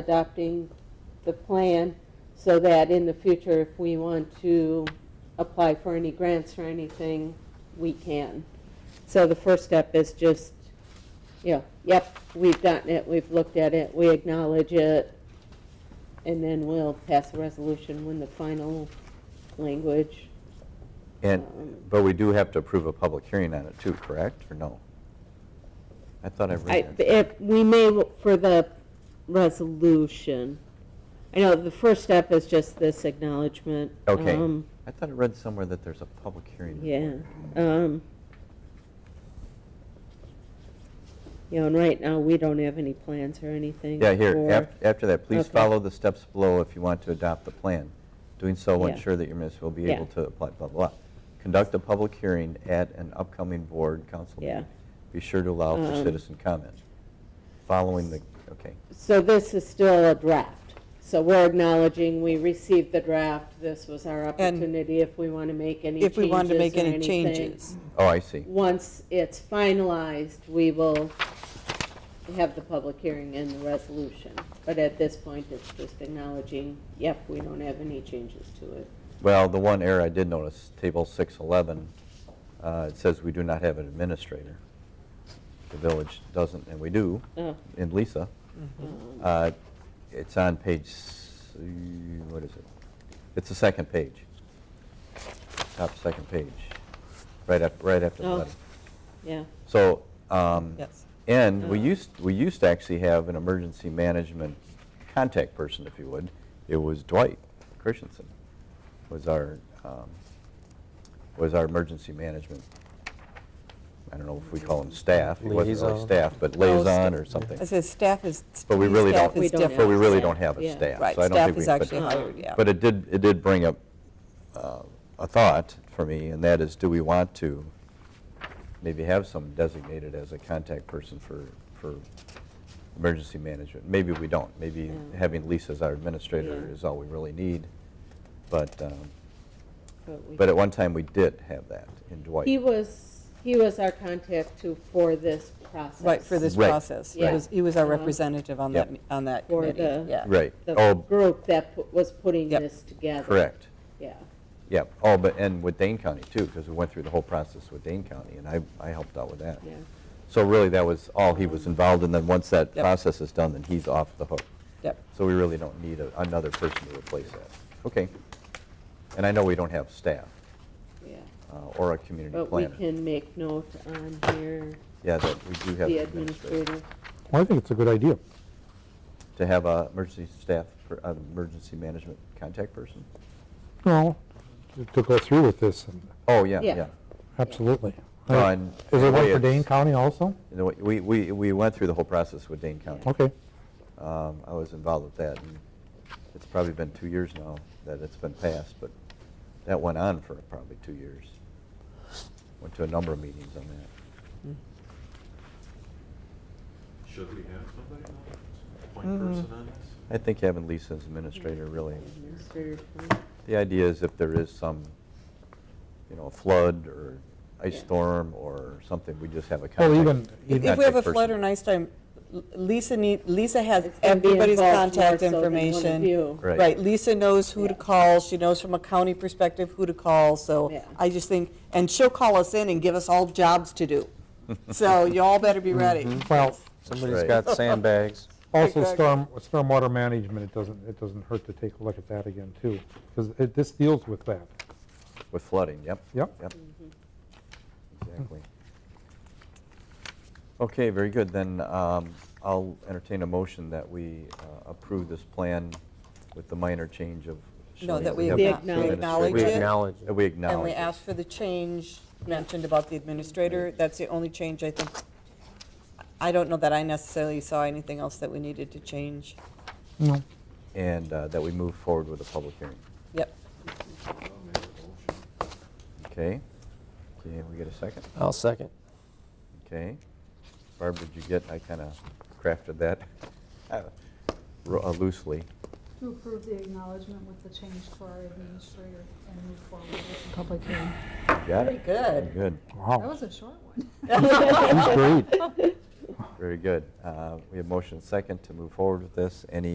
adopting the plan so that in the future, if we want to apply for any grants or anything, we can. So the first step is just, you know, yep, we've gotten it, we've looked at it, we acknowledge it, and then we'll pass a resolution when the final language. And, but we do have to approve a public hearing on it too, correct, or no? I thought I I, read that. if, we may, look for the resolution, I know the first step is just this acknowledgement. Okay. Um, I thought I read somewhere that there's a public hearing. Yeah, um. You know, and right now, we don't have any plans or anything. Yeah, here, for- af- after that, please Okay. follow the steps below if you want to adopt the plan. Doing so will Yeah. ensure that your municipal will be Yeah. able to apply, blah, blah. Conduct a public hearing at an upcoming board council Yeah. meeting. Be sure to allow for Um, citizen comment. Following the, okay, So this is still a draft, so we're acknowledging we received the draft, this was our opportunity if we want to make any if changes we wanted to make or any anything. changes. oh, I see. Once it's finalized, we will have the public hearing and the resolution. But at this point, it's just acknowledging, yep, we don't have any changes to it. Well, the one error I did notice, table 611, uh, it says we do not have an administrator. The village doesn't, and we do, Oh, in Lisa. um, Uh, It's on page, s- what is it? It's the second page, top second page, right after, right after the Oh. letter. Yeah, So, um, Yes. Mm-hmm. and we Uh. used, we used to actually have an emergency management contact person, if you would. It was Dwight Christensen, was our, um, was our emergency management, I don't know if we call him staff. He wasn't really Liaison. staff, but liaison or something. I said Oh, staff is, But we really staff don't- is We don't have- But we different. really don't have a Yeah. staff. Right, so I don't staff think we- is but- actually hired, yeah. But it did, it did bring up uh, a thought for me, and that is, do we want to maybe have some designated as a contact person for, for emergency management? Maybe we don't. Maybe Yeah. having Lisa as our administrator Yeah. is all we really need. But, um, but we. but at one time, we did have that in He Dwight. was, he was our contact too for this process. Right, for this Right, process. He right. was, he was our Yeah. Uh-huh. representative on that, Yep. on that For committee, the- yeah. Right. The Oh, group that pu- was putting Yep. this together. correct. Yeah, Yeah. Oh, but, and with Dane County, too, because we went through the whole process with Dane County, and I, I helped out with that. yeah. So really, that was all he was involved in, then once that Yep. process is done, then he's off the hook. Yep. So we really don't need a- another person to replace that. Okay. And I know we don't have staff Yeah, uh, or a community but we planner. can make note on here, Yeah, that we do have the an administrator. administrator. Well, I think it's a good idea. To have a emergency staff, per- an emergency management contact person? Well, to go through with this, and Oh, yeah, Yeah. yeah. absolutely. No, Uh, and- Is there one Yeah, for Dane it's- County also? You know, We, we, we went through the whole process with Dane County. Okay, Um, I was involved with that, and it's probably been two years now that it's been passed, but that went on for probably two years. Went to a number of meetings on that. Should we have somebody on this? Point person on this? Mm-hmm. I think having Lisa as administrator really, Administrator, please. the idea is if there is some, you know, flood or ice Yeah. storm or something, we just have a Well, contact. even- If Not if we have a contact flood or person. an ice storm, L- Lisa need, Lisa has It's gonna be everybody's involved more contact so than one of information. you. Right. Right, Lisa knows who to Yeah. call, she knows from a county perspective who to call, so Yeah. I just think, and she'll call us in and give us all jobs to do. So you all better be ready. Mm-hmm. well, Somebody's got sandbags. also Exactly. storm, stormwater management, it doesn't, it doesn't hurt to take a look at that again too, because this deals with that. With flooding, yep. Yep. Yep. Mm-hmm. Exactly. Okay, very good. Then um, I'll entertain a motion that we uh, approve this plan with the minor change of. No, showing that we have acknow- the we acknowledge administrator- it. We acknowledge it. That we And we acknowledge. asked for the change mentioned about the administrator, that's the only change I think. I don't know that I necessarily saw anything else that we needed to change. No. it, And uh, that we move forward with a public hearing. Yep, I'll make a Oh, motion. Okay? Okay, we get a second? I'll second. Okay. Barb, did you get, I kind of crafted that uh, ro- uh, loosely. To approve the acknowledgement with the change to our administrator and move forward with the public hearing. Got pretty it? good. Good. Wow. That was a short one. That's great. Very good. Uh, We have motion second to move forward with this. Any